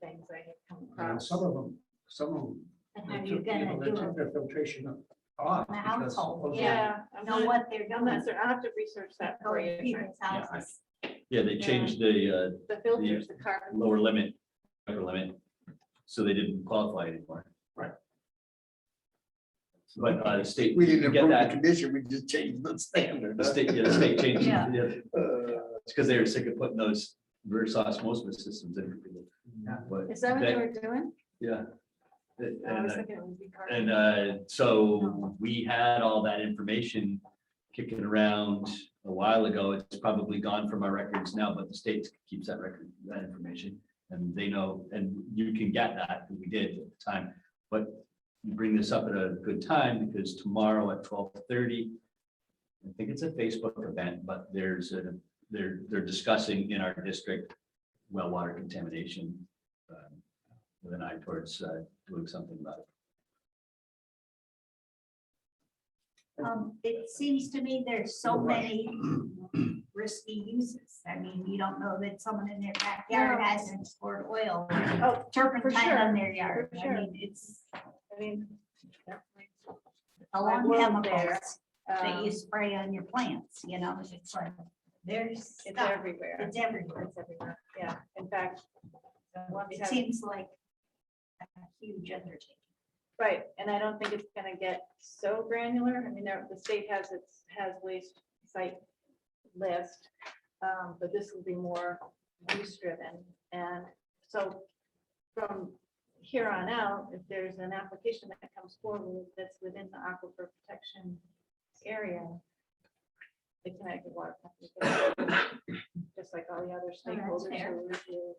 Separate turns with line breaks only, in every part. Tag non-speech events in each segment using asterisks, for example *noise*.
things I have come
And
across.
some of them, some of them.
And
they
how you
took- you know,
gonna
They
do
took
it?
their filtration off.
The
because
household,
of the-
Yeah, I'm
Know
not,
what they're
I'm
doing.
not sure. I'll have to research that for
Going to
you.
people's
Yeah, I-
houses.
Yeah, they changed the
The filters, the
uh,
carbon.
lower limit, upper limit, so they didn't qualify anymore.
Right.
But uh, the state,
We didn't
get
improve the
that.
condition, we just changed the standard.
the
*laughs*
state, yeah, the state changed,
Yeah.
it.
Uh,
it's because they were sick of putting those reverse osmosis systems in. But,
Is that what they
That-
were doing?
yeah. And-
I
and,
was
uh,
thinking it would be carbon.
And uh, so we had all that information kicking around a while ago. It's probably gone from our records now, but the state keeps that record, that information. And they know, and you can get that, and we did at the time. But you bring this up at a good time because tomorrow at twelve thirty, I think it's a Facebook event, but there's a, they're, they're discussing in our district well water contamination um, with an eye towards uh, doing something about it.
Um, it seems to me there's so
Right.
many risky uses. I mean, you don't know that someone in their backyard
No.
hasn't poured oil or
Oh,
turpentine
sure.
on their yard.
For
I
sure.
mean, it's
I mean. definitely.
a lot of
world
chemicals that
Um,
you spray on your plants, you know, it's like, there's
It's
stuff.
everywhere.
It's everywhere.
It's everywhere. Yeah, in fact. the one
It
time-
seems like a huge undertaking.
Right, and I don't think it's gonna get so granular. I mean, there- the state has its, has waste site list. um, But this will be more use driven. And so from here on out, if there's an application that comes forward that's within the aquifer protection area, the Connecticut Water Company, can, just like all the other stakeholders
fair.
who review,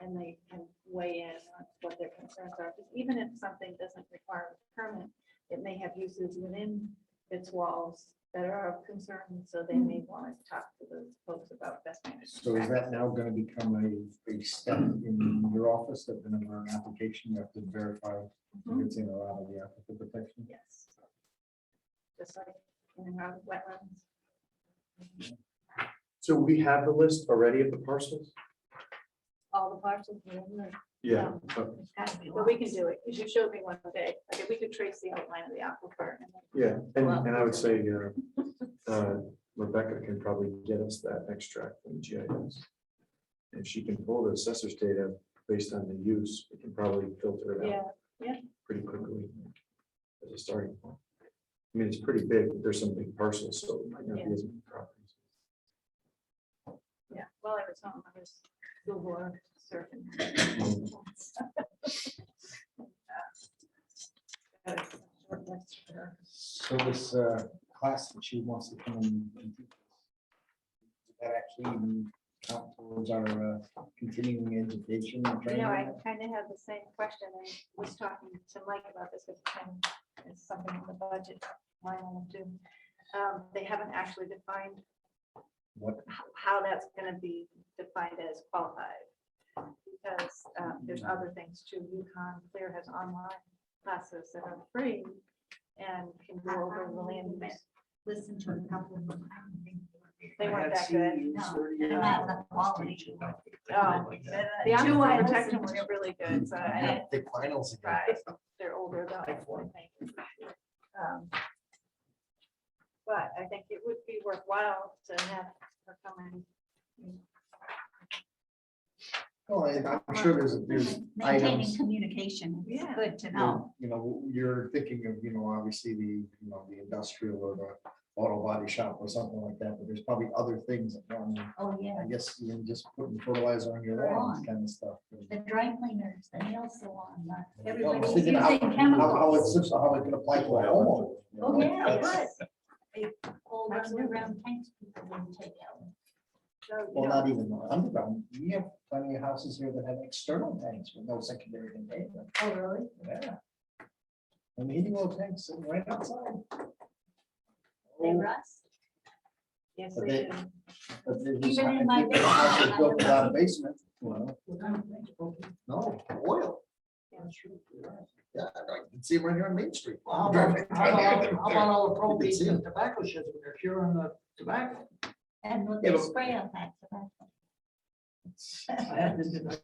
and they can weigh in on what their concerns are. Because even if something doesn't require a permit, it may have uses within its walls that are of concern, so they may want to talk to those folks about best management.
So is that now gonna become a, a step in your office that whenever an application, you have to verify if
Mhm.
it's in or out of the applicant protection?
Yes. Just like in and around wetlands.
So we have the list already of the parcels?
all the parcels. in the-
Yeah.
There's gotta be
But we can
lots.
do it, because you showed me one day, like, we could trace the outline of the aquifer. and then-
Yeah, and, and I would say, uh,
*laughs*
uh, Rebecca can probably get us that extract from GIS. If she can pull the assessor's data based on the use, we can probably filter it out
Yeah,
pretty quickly. As a starting point. I mean, it's pretty big, but there's some big parcels, so it might not be as many properties.
yeah, well, I was home, I was Google surfing. *laughs* Uh, short list for-
So this, uh, class that she wants to come in. and teach us, does That actually even count towards our uh, continuing education. and
You
training?
know, I kind of had the same question. I was talking to Mike about this, with Ken, it's something in the budget line item too. Um, They haven't actually defined
What,
how, how that's going to be defined as qualified. Because um, there's other things too. UConn Clear has online classes that are free and can go over the land use.
Listen to a couple of them. I don't think they
They
I
were very-
weren't
had
that good.
seen
No, *laughs*
30
they're
years
not
ago,
the
I was
quality.
teaching like
Oh,
like that.
The
The
the
two I
online protection was
listened to.
really good, so I
Yeah,
didn't
the finals again.
try. They're older though. I think. Um, But I think it would be worthwhile to have her come in.
Oh, and I'm sure there's, there's
Maintaining
items.
communication is
Yeah.
good to know.
you know, you're thinking of, you know, obviously the, you know, the industrial or the auto body shop or something like that, but there's probably other things. that go on.
Oh, yeah.
I guess even just putting fertilizer on your lawn, kind of stuff.
The dry cleaners, the nail salon, the-
I was
everybody's
thinking how-
using
How how
chemicals.
it's, how it can apply to a homeowner. you know,
Oh, yeah, it
that's-
was. They all run around tanks people wouldn't take out.
So, you
Well,
know,
not even underground. We have plenty of houses here that have external tanks with no secondary containment.
Oh, really?
Yeah. And the heating oil tanks sitting right outside.
They
Oh,
rust.
Yes,
But
they
they-
do.
But they just-
Even in my
I think the house is
basement, I
built
have
without a
nothing.
basement, you know. No, oil.
Yeah.
Yeah, I can see them right here on Main Street.
Well, How about how about- how about all the propane and tobacco sheds, when they're curing the tobacco?
And what
Yeah,
they
but-
spray on that. tobacco.
I had this in the